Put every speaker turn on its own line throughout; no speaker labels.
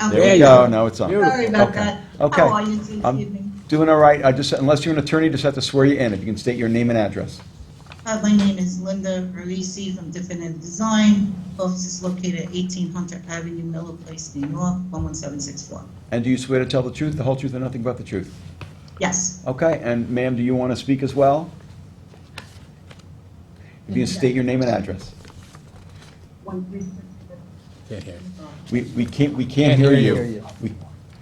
I'm
There
sorry.
you go, no, it's on.
Sorry about
Okay.
that.
Okay.
How are you this
I'm
evening?
Doing all right, I just, unless you're an attorney, just have to swear you in, if you can state your name and address.
Uh, My name is Linda Parisi from Definitive Design. Office is located at 18 Hunter Avenue, Miller Place, New York, 11764.
And do you swear to tell the truth, the whole truth, and nothing but the truth?
Yes,
Okay, and ma'am, do you want to speak as well? If you can state your name and address.
Can't hear.
We, we can't, we can't hear you. We,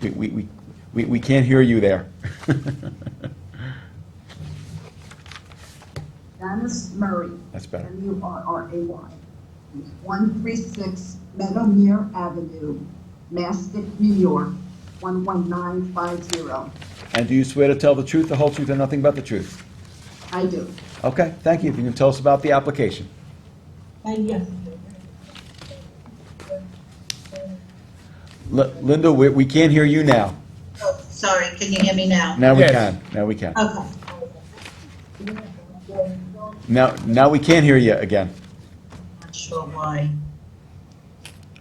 we- we, we, we, we can't hear you there.
Janice Murray,
That's better.
M-U-R-R-A-Y, 136 Meadowmere Avenue, Mastic, New York, 11950.
And do you swear to tell the truth, the whole truth, and nothing but the truth?
I do.
Okay, thank you. If you can tell us about the application. Li- Linda, we, we can't hear you now.
Oh, sorry, can you hear me now?
Now we
Yes.
can, now we can.
Okay.
Now, now we can't hear you again.
Not sure why.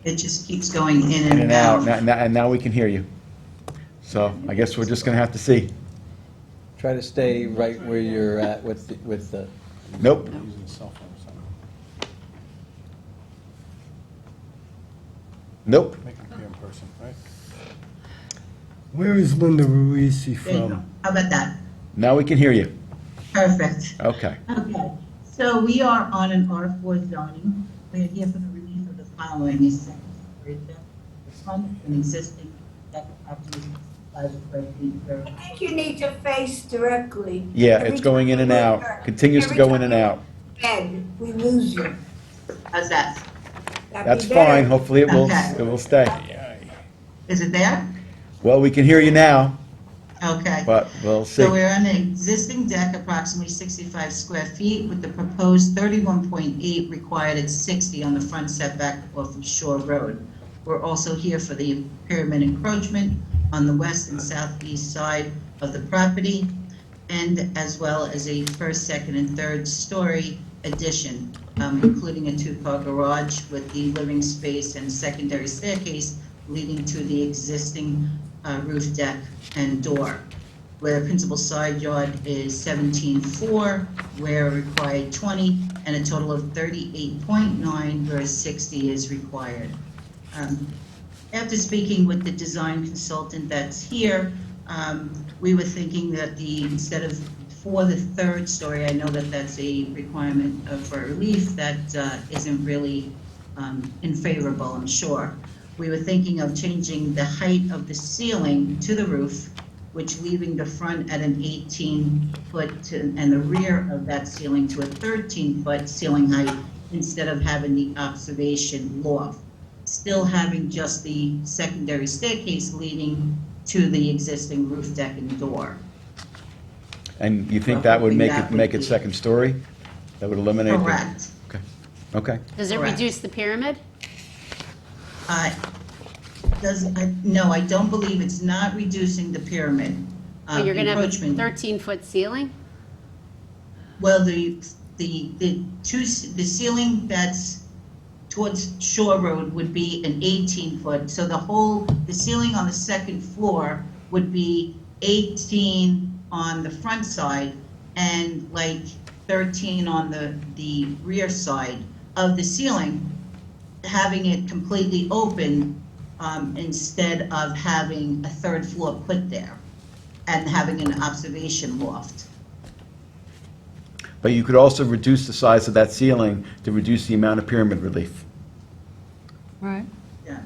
It just keeps going in
In
and
and out,
out.
now- now- and now we can hear you. So I guess we're just gonna have to see.
Try to stay right where you're at with, the- with the,
Nope.
Using a cell phone or something.
Nope.
Make it appear in person, right?
Where is Linda Ruisi
There you go.
from?
How about that?
Now we can hear you.
Perfect.
Okay.
Okay, so we are on an R4 zoning. We are here for the relief of the following, is second story deck, front and existing deck property, five square feet per.
I think you need to face directly.
Yeah,
Every
it's going in
time
and
you
out,
look
continues to
every
go
time
in and out.
you Bend, we lose you.
How's that?
That'd be
That's fine,
better.
hopefully it will,
Okay.
it will stay.
Is it there?
Well, we can hear you now,
Okay.
but we'll
So
see.
we're on an existing deck approximately 65 square feet with the proposed 31.8 required at 60 on the front setback off of Shore Road. We're also here for the pyramid encroachment on the west and southeast side of the property and as well as a first, second, and third story addition, um, including a two-car garage with the living space and secondary staircase leading to the existing uh, roof deck and door where principal side yard is seventeen-four, where required twenty, and a total of thirty-eight point nine, where sixty is required. Um, After speaking with the design consultant that's here, um, we were thinking that the, instead of for the third story, I know that that's a requirement uh, for relief that uh, isn't really um, in favorable, I'm sure. We were thinking of changing the height of the ceiling to the roof, which leaving the front at an 18-foot to- and the rear of that ceiling to a 13-foot ceiling height instead of having the observation loft. Still having just the secondary staircase leading to the existing roof deck and door.
And you think that would make it, make it
Probably.
second story? That would eliminate the...
Correct.
Okay, okay.
Does it
Correct.
reduce the pyramid?
Uh, Does, I- no, I don't believe it's not reducing the pyramid uh,
But you're gonna have a
encroachment.
thirteen-foot ceiling?
Well, the, the, the two, s- the ceiling that's towards Shore Road would be an eighteen foot, so the whole, the ceiling on the second floor would be eighteen on the front side and like thirteen on the, the rear side of the ceiling, having it completely open, um, instead of having a third floor put there and having an observation loft.
But you could also reduce the size of that ceiling to reduce the amount of pyramid relief.
Yeah.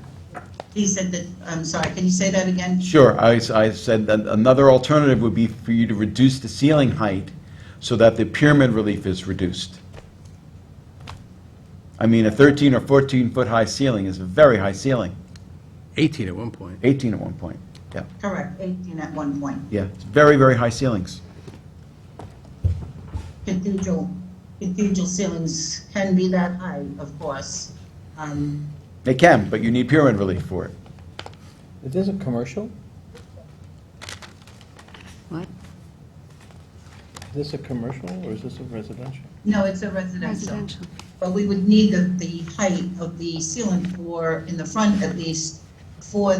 He said that, I'm sorry, can you say that again?
Sure, I, s- I said that another alternative would be for you to reduce the ceiling height so that the pyramid relief is reduced. I mean, a 13 or 14-foot high ceiling is a very high ceiling,
18 at one point.
18 at one point, yeah.
Correct, 18 at one point.
Yeah, it's very, very high ceilings.
Cathedral, cathedral ceilings can be that high, of course. Um,
They can, but you need pyramid relief for it.
is this a commercial?
What?
Is this a commercial or is this a residential?
No, it's a residential. But we would need the, the height of the ceiling for, in the front at least, for